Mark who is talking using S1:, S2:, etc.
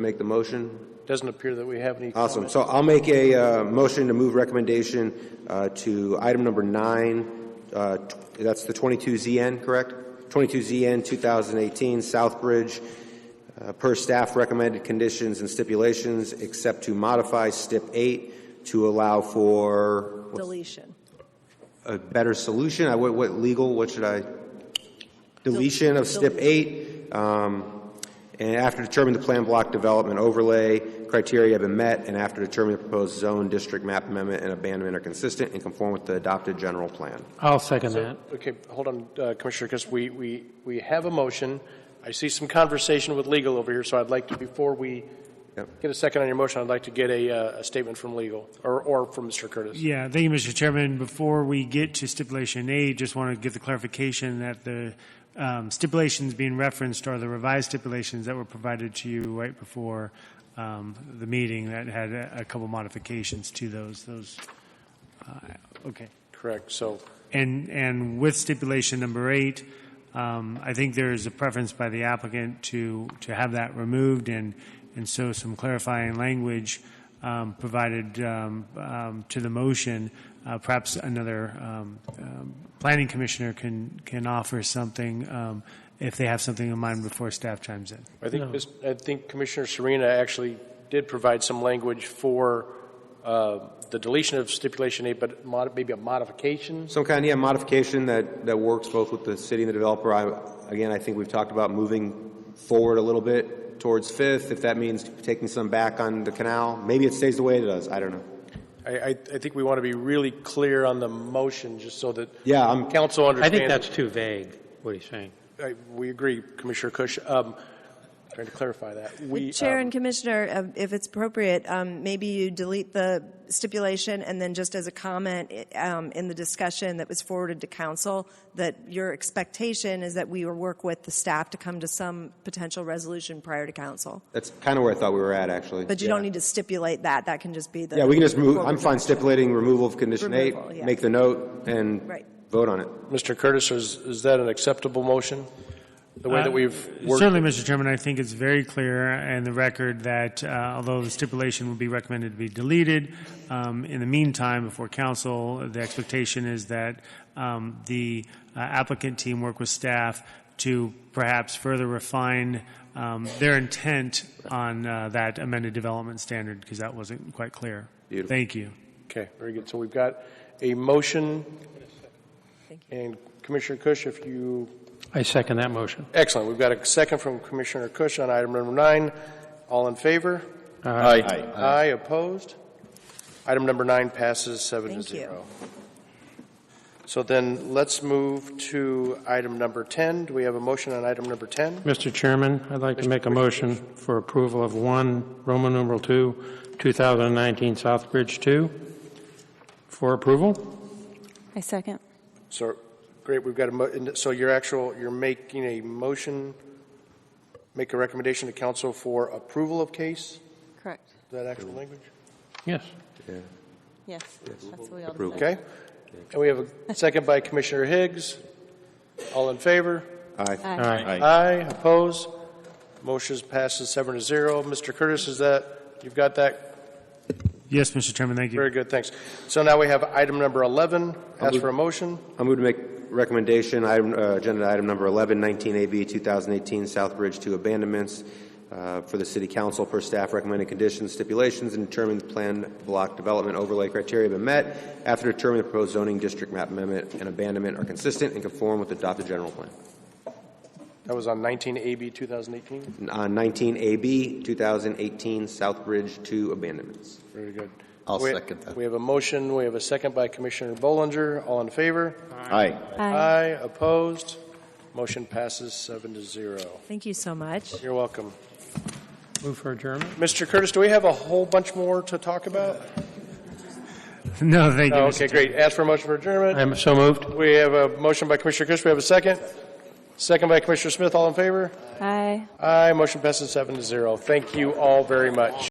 S1: make the motion?
S2: Doesn't appear that we have any comment.
S1: Awesome. So I'll make a uh, motion to move recommendation uh, to item number nine. uh, tw- That's the 22ZN, correct? 22ZN 2018, Southbridge, uh, per staff recommended conditions and stipulations, except to modify STIP 8 to allow for
S3: deletion.
S1: a better solution. I- What, what legal, what should I? Deletion of STIP 8. um, And after determining the plan block development overlay criteria have been met, and after determining the proposed zone, district map amendment, and abandonment are consistent and conform with the adopted general plan.
S4: I'll second that.
S2: Okay, hold on, uh, Commissioner, because we, we, we have a motion. I see some conversation with legal over here, so I'd like to, before we
S1: Yep.
S2: get a second on your motion, I'd like to get a, uh, a statement from legal, or, or from Mr. Curtis.
S4: Yeah, thank you, Mr. Chairman. Before we get to stipulation A, just want to get the clarification that the um, stipulations being referenced are the revised stipulations that were provided to you right before um, the meeting that had a a couple modifications to those, those, uh, okay.
S2: Correct, so,
S4: And, and with stipulation number eight, um, I think there is a preference by the applicant to, to have that removed, and, and so some clarifying language um, provided um, um, to the motion. Uh, Perhaps another um, um, planning commissioner can, can offer something um, if they have something in mind before staff chimes in.
S2: I think, this- I think Commissioner Serena actually did provide some language for, uh, the deletion of stipulation eight, but mod, maybe a modification?
S1: Some kind, yeah, modification that, that works both with the city and the developer. I, again, I think we've talked about moving forward a little bit towards Fifth, if that means taking some back on the canal. Maybe it stays the way it does, I don't know.
S2: I, I, I think we want to be really clear on the motion, just so that
S1: Yeah, I'm,
S2: council
S5: I
S2: understands.
S5: think that's too vague, what he's saying.
S2: I- We agree, Commissioner Cush. Um, Trying to clarify that. We,
S3: Chair
S2: um,
S3: and Commissioner, uh, if it's appropriate, um, maybe you delete the stipulation and then just as a comment i- um, in the discussion that was forwarded to council, that your expectation is that we will work with the staff to come to some potential resolution prior to council.
S1: that's kind of where I thought we were at, actually.
S3: But you don't need to stipulate that. That can just be the.
S1: Yeah, we can just move, I'm
S3: forward
S1: fine
S3: direction.
S1: stipulating removal of condition eight,
S3: Removal, yeah.
S1: make the note, and
S3: Right.
S1: vote on it.
S2: Mr. Curtis, is, is that an acceptable motion? The way that we've worked?
S4: Uh, Certainly, Mr. Chairman, I think it's very clear in the record that uh, although the stipulation would be recommended to be deleted, um, in the meantime, before council, the expectation is that um, the uh, applicant team work with staff to perhaps further refine um, their intent on uh, that amended development standard, because that wasn't quite clear.
S1: Beautiful.
S4: Thank you.
S2: Okay, very good. So we've got a motion.
S3: Thank
S2: And Commissioner Cush, if you,
S5: I second that motion.
S2: excellent. We've got a second from Commissioner Cush on item number nine. All in favor?
S5: Aye.
S2: Aye, opposed? Item number nine passes seven to
S3: Thank you.
S2: zero. So then let's move to item number 10. Do we have a motion on item number 10?
S5: Mr. Chairman, I'd like to make a motion for approval of 1, Roman numeral 2, 2019 Southbridge 2, for approval.
S6: I second.
S2: So, great, we've got a, mo- and so your actual, you're making a motion, make a recommendation to council for approval of case?
S6: Correct.
S2: Is that actual language?
S5: Yes.
S6: Yes. That's what we all
S1: Approval.
S6: said.
S2: Okay. And we have a second by Commissioner Higgs. All in favor?
S1: Aye.
S5: Aye.
S2: Aye, opposed? Motion passes seven to zero. Mr. Curtis, is that, you've got that?
S4: Yes, Mr. Chairman, thank you.
S2: Very good, thanks. So now we have item number 11. Ask for a motion.
S1: I'm going to make recommendation, item, uh, agenda item number 11, 19AB 2018, Southbridge to abandonments uh, for the city council per staff recommended conditions, stipulations, and determine the plan block development overlay criteria have been met after determining the proposed zoning district map amendment and abandonment are consistent and conform with the adopted general plan.
S2: That was on 19 AB 2018.
S1: On 19AB 2018, Southbridge to abandonments.
S2: Very good.
S7: I'll
S2: We-
S7: second that.
S2: We have a motion, we have a second by Commissioner Bollinger. All in favor?
S7: Aye.
S2: Aye, opposed? Motion passes seven to zero.
S3: Thank you so much.
S2: You're welcome.
S5: Move for adjournment.
S2: Mr. Curtis, do we have a whole bunch more to talk about?
S4: No, thank you,
S2: No,
S4: Mr.
S2: Okay, great. Ask for a motion for adjournment.
S5: I'm so moved.
S2: We have a motion by Commissioner Kush, we have a second. Second by Commissioner Smith, all in favor?
S6: Aye.
S2: Aye, motion passes seven to zero. Thank you all very much.